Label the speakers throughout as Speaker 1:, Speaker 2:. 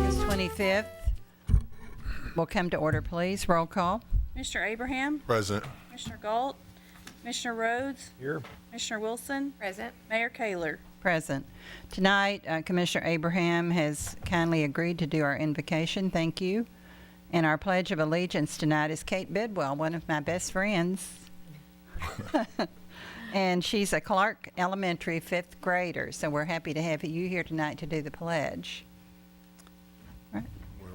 Speaker 1: 25th. Will come to order, please. Roll call.
Speaker 2: Mr. Abraham,
Speaker 3: Present.
Speaker 2: Mr. Galt, Mr. Rhodes,
Speaker 4: Here.
Speaker 2: Mr. Wilson,
Speaker 5: Present.
Speaker 2: Mayor Kayler.
Speaker 1: Present. Tonight, uh, Commissioner Abraham has kindly agreed to do our invocation. Thank you. And our Pledge of Allegiance tonight is Kate Bidwell, one of my best friends. and she's a Clark Elementary fifth grader, so we're happy to have you here tonight to do the pledge. All right.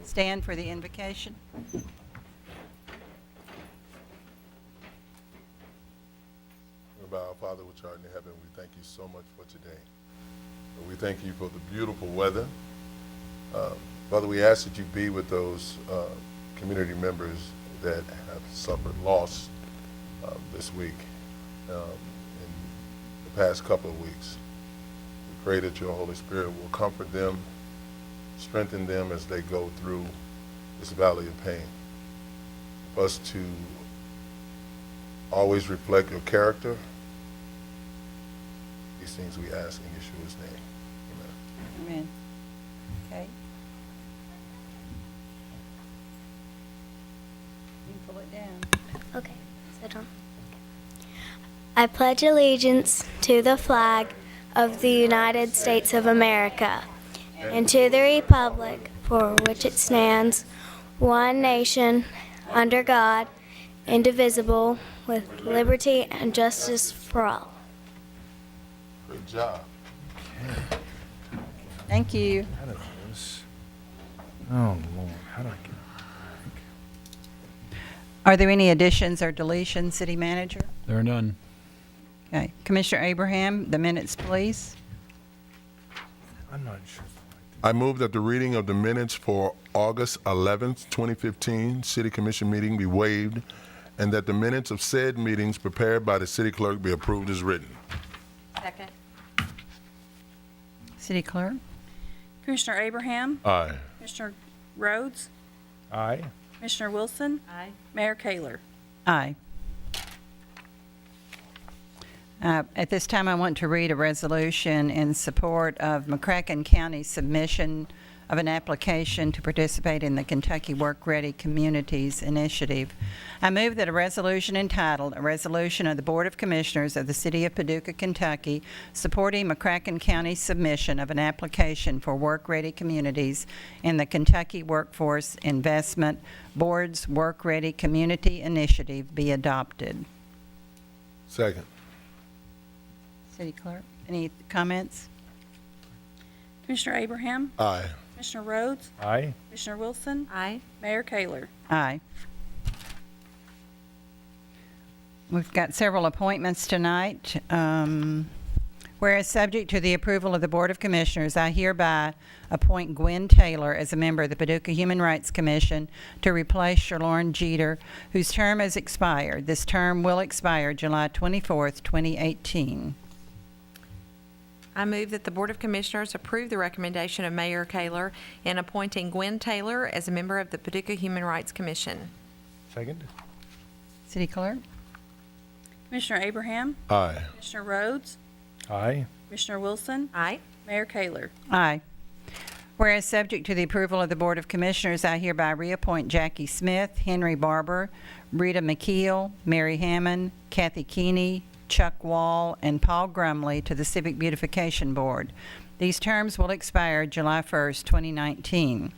Speaker 1: Stand for the invocation.
Speaker 3: By our Father which art in heaven, we thank you so much for today. We thank you for the beautiful weather. Uh, Father, we ask that you be with those uh, community members that have suffered loss uh, this week, um, in the past couple of weeks. We pray that your Holy Spirit will comfort them, strengthen them as they go through this valley of pain. For us to always reflect your character. These things we ask in Yeshua's name. Amen.
Speaker 1: Amen. Okay. You can pull it down.
Speaker 6: Okay, sit on. I pledge allegiance to the flag of the United States of America and to the republic for which it stands, one nation, under God, indivisible, with liberty and justice for all.
Speaker 3: Great job.
Speaker 1: Thank you.
Speaker 4: Out of this. Oh, Lord, how do I get?
Speaker 1: Are there any additions or deletions, City Manager?
Speaker 7: There are none.
Speaker 1: Okay. Commissioner Abraham, the minutes, please.
Speaker 4: I'm not sure.
Speaker 3: I move that the reading of the minutes for August 11th, 2015 City Commission meeting be waived and that the minutes of said meetings prepared by the city clerk be approved as written.
Speaker 5: Second.
Speaker 1: City Clerk?
Speaker 2: Commissioner Abraham,
Speaker 3: Aye.
Speaker 2: Mr. Rhodes,
Speaker 4: Aye.
Speaker 2: Mr. Wilson,
Speaker 5: Aye.
Speaker 2: Mayor Kayler.
Speaker 1: Aye. Uh, At this time, I want to read a resolution in support of McCracken County's submission of an application to participate in the Kentucky Work Ready Communities Initiative. I move that a resolution entitled, "A Resolution of the Board of Commissioners of the City of Paducah, Kentucky, supporting McCracken County's submission of an application for Work Ready Communities in the Kentucky Workforce Investment Board's Work Ready Community Initiative be adopted."
Speaker 3: Second.
Speaker 1: City Clerk, any comments?
Speaker 2: Commissioner Abraham,
Speaker 3: Aye.
Speaker 2: Mr. Rhodes,
Speaker 4: Aye.
Speaker 2: Mr. Wilson,
Speaker 5: Aye.
Speaker 2: Mayor Kayler.
Speaker 1: Aye. We've got several appointments tonight. Um, Whereas subject to the approval of the Board of Commissioners, I hereby appoint Gwen Taylor as a member of the Paducah Human Rights Commission to replace Shalorn Jeter, whose term has expired. This term will expire July 24th, 2018.
Speaker 5: I move that the Board of Commissioners approve the recommendation of Mayor Kayler in appointing Gwen Taylor as a member of the Paducah Human Rights Commission.
Speaker 4: Second?
Speaker 1: City Clerk?
Speaker 2: Commissioner Abraham,
Speaker 3: Aye.
Speaker 2: Mr. Rhodes,
Speaker 4: Aye.
Speaker 2: Mr. Wilson,
Speaker 5: Aye.
Speaker 2: Mayor Kayler.
Speaker 1: Aye. Whereas subject to the approval of the Board of Commissioners, I hereby reappoint Jackie Smith, Henry Barber, Rita McKeel, Mary Hammond, Kathy Keeney, Chuck Wall, and Paul Grumley to the Civic Beautification Board. These terms will expire July 1st, 2019.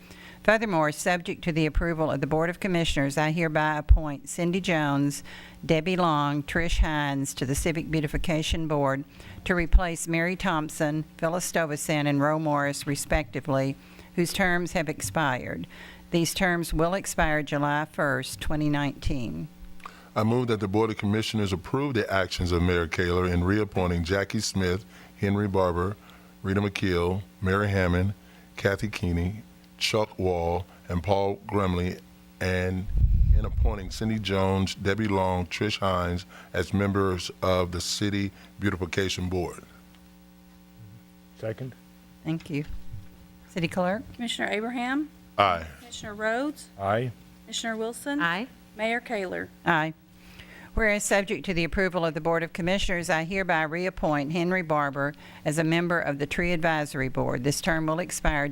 Speaker 1: Furthermore, subject to the approval of the Board of Commissioners, I hereby appoint Cindy Jones, Debbie Long, Trish Hines to the Civic Beautification Board to replace Mary Thompson, Phyllis Stovacen, and Roe Morris respectively, whose terms have expired. These terms will expire July 1st, 2019.
Speaker 3: I move that the Board of Commissioners approve the actions of Mayor Kaler in reappointing Jackie Smith, Henry Barber, Rita McKeel, Mary Hammond, Kathy Keeney, Chuck Wall, and Paul Gremley, and in appointing Cindy Jones, Debbie Long, Trish Hines as members of the City Beautification Board.
Speaker 4: Second?
Speaker 1: Thank you. City Clerk?
Speaker 2: Commissioner Abraham,
Speaker 3: Aye.
Speaker 2: Commissioner Rhodes,
Speaker 4: Aye.
Speaker 2: Mr. Wilson.
Speaker 5: Aye.
Speaker 2: Mayor Kayler.
Speaker 1: Aye. Whereas subject to the approval of the Board of Commissioners, I hereby reappoint Henry Barber as a member of the Tree Advisory Board. This term will expire